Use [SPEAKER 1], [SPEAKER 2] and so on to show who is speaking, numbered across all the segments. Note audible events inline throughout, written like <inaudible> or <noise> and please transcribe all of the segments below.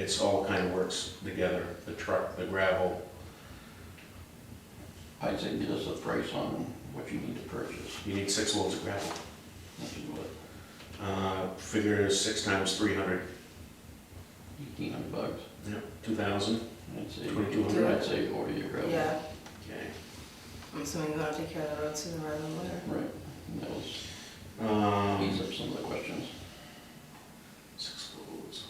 [SPEAKER 1] It's all kind of works together, the truck, the gravel,
[SPEAKER 2] I'd say give us a price on what you need to purchase.
[SPEAKER 1] you need six loads of gravel.
[SPEAKER 2] Which is what,
[SPEAKER 1] Uh, Figure six times three hundred,
[SPEAKER 2] eighteen hundred bucks?
[SPEAKER 1] two thousand,
[SPEAKER 2] I'd say,
[SPEAKER 1] Twenty-two
[SPEAKER 2] i
[SPEAKER 1] hundred.
[SPEAKER 2] I'd say order your gravel.
[SPEAKER 3] Yeah,
[SPEAKER 1] okay.
[SPEAKER 3] I'm assuming we want to take care of the road sooner rather than later.
[SPEAKER 2] Right, and that was,
[SPEAKER 1] Um,
[SPEAKER 2] ease up some of the questions.
[SPEAKER 1] Six loads.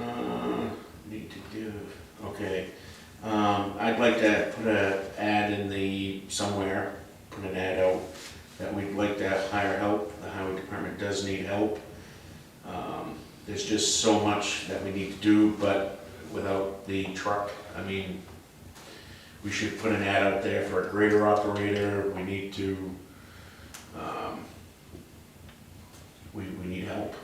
[SPEAKER 1] Uh, Need to do, okay. Um, I'd like to put a ad in the, somewhere, put an ad out that we'd like to hire help. The highway department does need help. Um, There's just so much that we need to do, but without the truck, I mean, we should put an ad out there for a grader operator. We need to, um, we, we need help.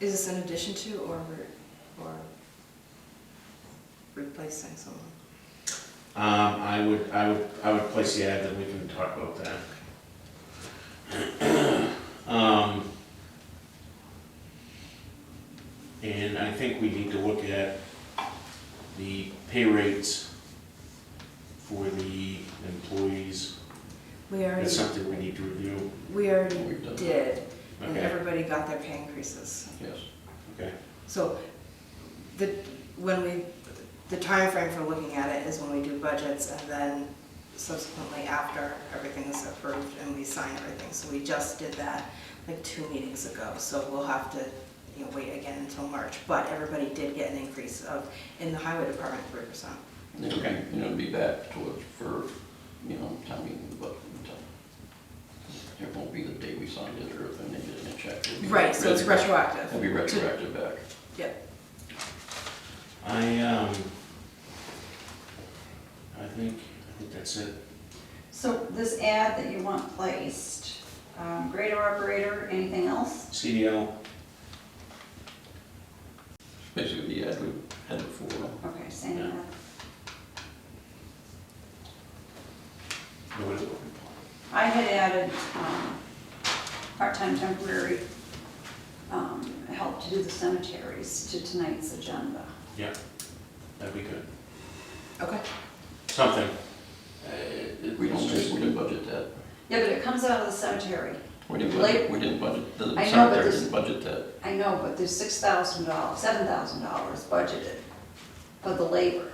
[SPEAKER 3] Is this in addition to or, re- or replacing someone?
[SPEAKER 1] Um, I would, I would, I would place the ad, then we can talk about that. <clears throat> Um, and I think we need to look at the pay rates for the employees.
[SPEAKER 3] We
[SPEAKER 1] That's
[SPEAKER 3] already,
[SPEAKER 1] something we need to review.
[SPEAKER 3] we already
[SPEAKER 2] We've done that.
[SPEAKER 3] did, and
[SPEAKER 1] Okay,
[SPEAKER 3] everybody got their pay increases.
[SPEAKER 2] Yes,
[SPEAKER 1] okay,
[SPEAKER 3] So the, when we, the time frame for looking at it is when we do budgets and then subsequently after everything is approved and we sign everything. So we just did that like two meetings ago, so we'll have to, you know, wait again until March. But everybody did get an increase of, in the highway department, three percent.
[SPEAKER 2] and it'll
[SPEAKER 1] Okay.
[SPEAKER 2] be, you know, it'll be back towards, for, you know, town meeting, but until, it won't be the day we signed it or if they didn't check. It'll be
[SPEAKER 3] Right, so it's
[SPEAKER 2] retro-
[SPEAKER 3] retroactive.
[SPEAKER 2] It'll be retroactive back.
[SPEAKER 3] Yep.
[SPEAKER 1] I, um, I think, I think that's it.
[SPEAKER 4] So this ad that you want placed, um, grader operator, anything else?
[SPEAKER 1] CDL,
[SPEAKER 2] Basically, the ad we had before.
[SPEAKER 4] Okay, same
[SPEAKER 1] Yeah.
[SPEAKER 4] ad.
[SPEAKER 1] nobody's looking for.
[SPEAKER 4] I had added, um, part-time temporary, um, help to do the cemeteries to tonight's agenda.
[SPEAKER 1] Yeah, that'd be good.
[SPEAKER 3] Okay.
[SPEAKER 1] Something.
[SPEAKER 2] We don't, we didn't budget that.
[SPEAKER 4] Yeah, but it comes out of the cemetery.
[SPEAKER 2] We didn't
[SPEAKER 4] Late-
[SPEAKER 2] budget, we didn't budget, the
[SPEAKER 4] but
[SPEAKER 2] cemetery
[SPEAKER 4] this-
[SPEAKER 2] didn't budget that.
[SPEAKER 4] I know, but there's six thousand dollars, seven thousand dollars budgeted for the labor.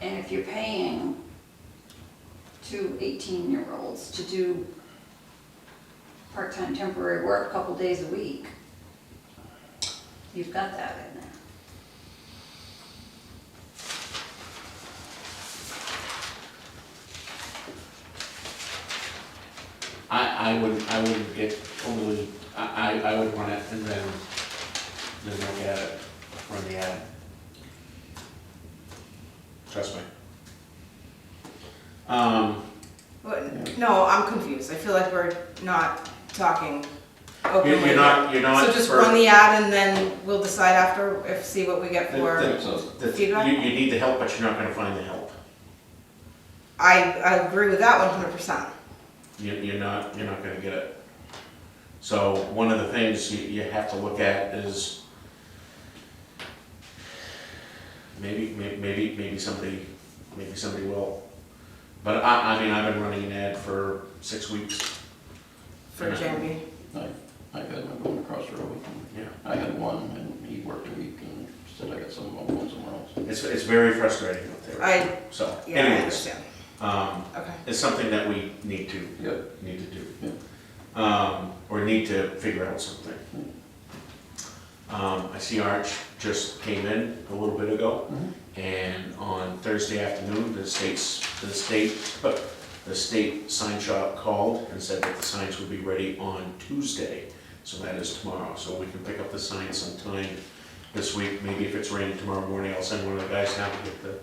[SPEAKER 4] And if you're paying two eighteen-year-olds to do part-time temporary work a couple days a week, you've got that in there.
[SPEAKER 1] I, I would, I wouldn't get overly, I, I, I would run it and then, then look at it, run the ad. Trust me. Um,
[SPEAKER 3] Well, No, I'm confused. I feel like we're not talking openly.
[SPEAKER 1] you- you're not, you're not.
[SPEAKER 3] So just
[SPEAKER 1] for-
[SPEAKER 3] run the ad and then we'll decide after, if, see what we get
[SPEAKER 1] The-
[SPEAKER 3] for.
[SPEAKER 1] the-
[SPEAKER 2] So,
[SPEAKER 1] the- You,
[SPEAKER 3] feedback?
[SPEAKER 1] you need the help, but you're not gonna find the help.
[SPEAKER 3] I, I agree with that one hundred percent.
[SPEAKER 1] you, you're not, you're not gonna get it. So one of the things you, you have to look at is maybe, may- maybe, maybe somebody, maybe somebody will. But I, I mean, I've been running an ad for six weeks,
[SPEAKER 3] For Jamie,
[SPEAKER 2] I, I had one going across the road.
[SPEAKER 1] yeah.
[SPEAKER 2] I had one, and he worked a week and said, I got some of them going somewhere else.
[SPEAKER 1] It's, it's very frustrating out there,
[SPEAKER 3] I,
[SPEAKER 1] so
[SPEAKER 3] yeah, I
[SPEAKER 1] anyways,
[SPEAKER 3] understand.
[SPEAKER 1] um,
[SPEAKER 3] Okay.
[SPEAKER 1] it's something that we need to,
[SPEAKER 2] Yep,
[SPEAKER 1] need to do. Um, or need to figure out something. Um, I see Arch just came in a little bit ago. And on Thursday afternoon, the state's, the state, the state sign shop called and said that the signs would be ready on Tuesday. So that is tomorrow, so we can pick up the signs sometime this week, maybe if it's raining tomorrow morning, I'll send one of the guys down to get the,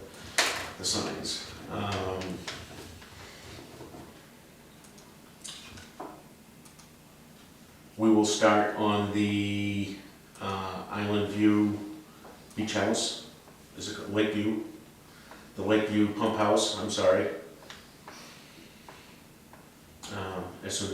[SPEAKER 1] the signs. Um, We will start on the uh, Island View Beach House is it Lakeview? The Lakeview Pump House, I'm sorry. Um,